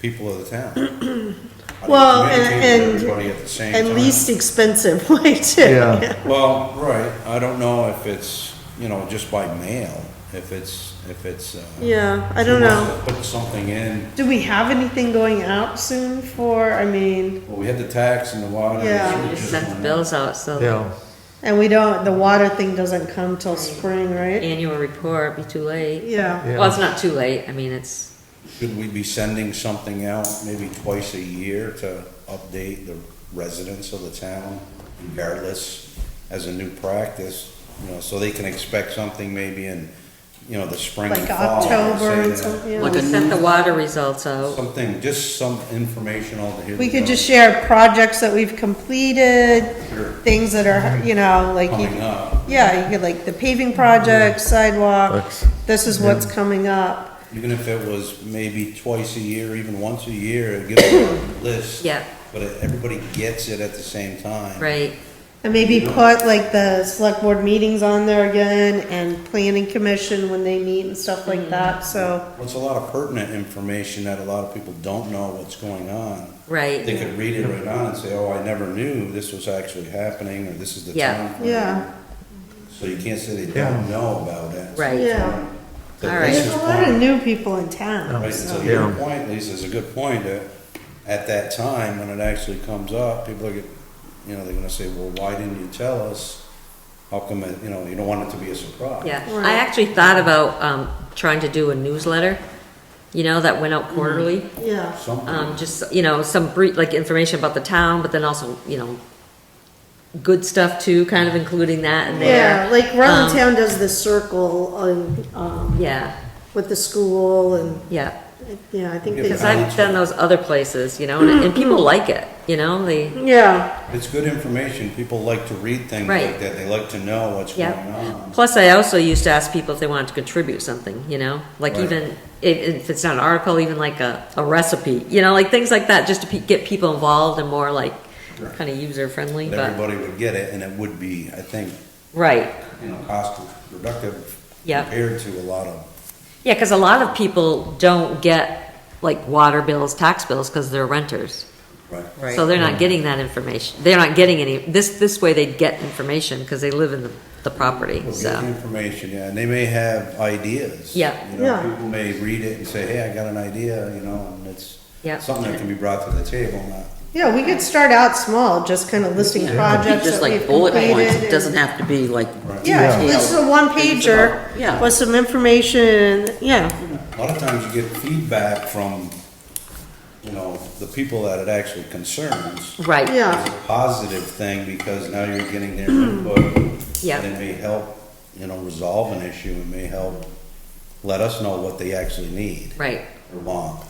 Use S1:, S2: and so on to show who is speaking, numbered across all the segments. S1: people of the town. How do you
S2: Well,
S1: communicate
S2: and-
S1: with Everybody at the same time.
S2: And least expensive way too.
S3: Yeah.
S1: Well, right, I don't know if it's, you know, just by mail, if it's, if it's. uh,
S2: Yeah, I don't
S1: if you
S2: know.
S1: want to Put something in,
S2: Do we have anything going out soon for, I mean,
S1: well, we had the tax and the water. and
S2: Yeah.
S1: sewer
S4: We just sent the
S1: one.
S4: bills out, so the
S3: Yeah,
S2: and we don't, the water thing doesn't come till spring, right?
S4: annual report be too late.
S2: Yeah,
S4: Well,
S3: yeah,
S4: it's not too late, I mean, it's,
S1: Should we be sending something out maybe twice a year to update the residents of the town regardless as a new practice? You know, so they can expect something maybe in, you know, the spring and
S2: like
S1: fall. say
S2: October and
S1: that-
S2: something. yeah.
S4: we sent the water results out.
S1: Something, just some informational to hear.
S2: We could
S1: the-
S2: just share projects that we've completed,
S1: Sure.
S2: things that are, you know, like, you-
S1: Coming up,
S2: yeah, you could like the paving projects, sidewalks, this is what's coming up.
S1: even if it was maybe twice a year, even once a year, give them a list.
S4: Yeah.
S1: But everybody gets it at the same time.
S4: Right,
S2: And maybe put like the select board meetings on there again and planning commission when they meet and stuff
S5: Mm.
S2: like that, so,
S1: Well, It's a lot of pertinent information that a lot of people don't know what's going on. They
S4: right,
S1: could read it right on and say, oh, I never knew this was actually happening, or this is the
S4: Yeah.
S1: time.
S2: yeah.
S1: So you can't say they don't know about it.
S4: right.
S2: Yeah.
S1: So
S4: All right.
S1: Lisa's
S2: There's a lot of
S1: point-
S2: new people in town.
S1: Right, so your point, Lisa, is a good point, that at that time, when it actually comes up, people are, get- you know, they're gonna say, well, why didn't you tell us? How come, it- you know, you don't want it to be a surprise.
S4: Yeah,
S2: Right.
S4: I actually thought about, um, trying to do a newsletter, you know, that went out quarterly.
S2: Yeah,
S4: Um,
S1: Something,
S4: just, you know, some brief, like information about the town, but then also, you know, good stuff too, kind of including that in there.
S2: yeah, like Rutland
S4: Um,
S2: Town does the circle on, um,
S4: Yeah,
S2: with the school and,
S4: yeah,
S2: yeah, I think
S1: Yeah,
S2: they,
S4: because I've done those other places, you know, and, and people like it, you know, they,
S2: yeah,
S1: it's good information, people like to read things
S4: Right.
S1: like that, they like to know what's going
S4: yeah.
S1: on.
S4: Plus, I also used to ask people if they wanted to contribute something, you know, like
S1: Right.
S4: even, if, if it's not an article, even like a, a recipe, you know, like things like that, just to pe- get people involved and more like,
S1: Right.
S4: kind of user friendly,
S1: And
S4: but,
S1: everybody would get it, and it would be, I think,
S4: right.
S1: you know, cost productive
S4: Yeah.
S1: compared to a lot of,
S4: Yeah, because a lot of people don't get like water bills, tax bills, because they're renters.
S1: right?
S4: So they're not getting that information. They're not getting any, this, this way they get information because they live in the, the property,
S1: We'll get the
S4: so.
S1: information, yeah, and they may have ideas.
S4: Yeah.
S1: You know,
S2: Yeah.
S1: people may read it and say, hey, I got an idea, you know, and it's
S4: Yeah.
S1: something that can be brought to the table, not,
S2: yeah, we could start out small, just kind of listing projects
S5: Just
S2: that we've
S5: like bullet points,
S2: completed.
S5: it doesn't
S2: and-
S5: have to be like.
S2: Yeah,
S5: detailed
S2: it's a one
S5: things about-
S2: pager
S5: Yeah.
S2: with some information, and yeah,
S1: a lot of times you get feedback from, you know, the people that it actually concerns.
S4: Right.
S2: yeah,
S1: It's a positive thing, because now you're getting their input.
S4: Yeah.
S1: And it may help, you know, resolve an issue, it may help let us know what they actually need
S4: Right.
S1: or want.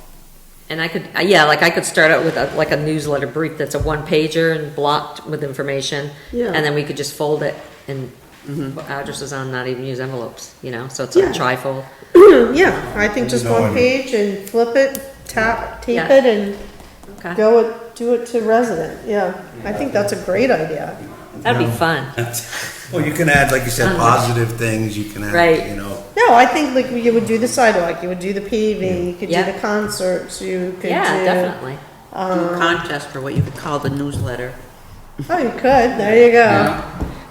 S4: And I could, uh, yeah, like I could start out with a, like a newsletter brief that's a one pager and blocked with information.
S2: Yeah. Mm-hmm.
S4: And then we could just fold it and put addresses on, not even use envelopes, you know, so it's
S2: Yeah.
S4: a trifold.
S2: yeah, I think just
S1: No, I
S2: one
S1: don't-
S2: page and flip it, tap, tape
S4: Yeah.
S2: it and
S4: Okay.
S2: go it, do it to resident, yeah. I think that's a great idea.
S4: That'd be fun.
S1: Well, you can add, like you said, positive things, you can
S4: Uh-huh. Right.
S1: add, you know,
S2: No, I think like you would do the sidewalk, you would do the paving, you could do
S4: Yeah.
S2: the concerts, you could do.
S4: Yeah, definitely.
S5: Do a Contest or what you could call the newsletter.
S2: Oh, you could, there you go.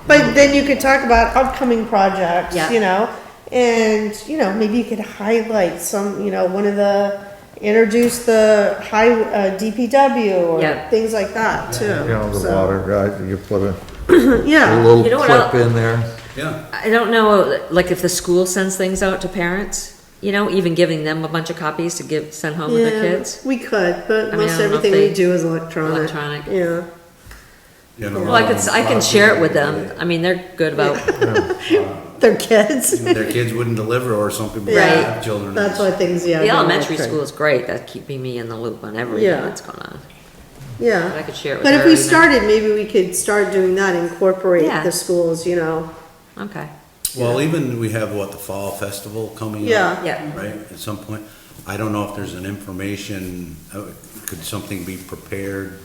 S2: But then you could talk about upcoming projects,
S4: Yeah.
S2: you know? And, you know, maybe you could highlight some, you know, one of the, introduce the high, uh, DPW
S4: Yeah.
S2: or things like that too.
S3: yeah, the
S2: So,
S3: water, right, you put a a
S2: Yeah,
S3: little
S4: You know what I'll-
S3: clip in there.
S1: yeah.
S4: I don't know, like if the school sends things out to parents, you know, even giving them a bunch of copies to give, send home to their
S2: yeah,
S4: kids.
S2: we could,
S4: I
S2: but
S4: mean, I
S2: most
S4: don't know if
S2: everything we
S4: they-
S2: do is electronic.
S4: Electronic.
S2: Yeah.
S1: you know,
S4: Well, I could, I can share it with them. I mean, they're good about,
S2: Their kids.
S1: Their kids wouldn't deliver or something, but they
S4: Right.
S1: have children.
S2: That's why things, yeah.
S4: the
S2: they're
S4: elementary
S2: electronic.
S4: school is great, that's keeping me in the loop on everything
S2: Yeah.
S4: that's going on.
S2: Yeah.
S4: But I could share it with
S2: But if
S4: her
S2: we
S4: and then-
S2: started, maybe we could start doing that, incorporate
S4: Yeah.
S2: the schools, you know?
S4: Okay,
S1: Well, even we have, what, the fall festival coming up?
S2: Yeah.
S4: Yeah.
S1: Right, at some point. I don't know if there's an information, uh, could something be prepared?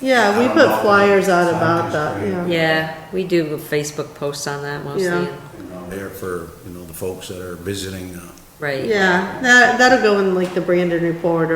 S2: Yeah, we
S1: I don't
S2: put
S1: know.
S2: flyers out about that,
S1: Flyers,
S2: yeah.
S4: yeah, we do Facebook posts on that mostly.
S2: Yeah.
S1: You know, there for, you know, the folks that are visiting, uh,
S4: right?
S2: Yeah, that, that'll go in like the Brandon report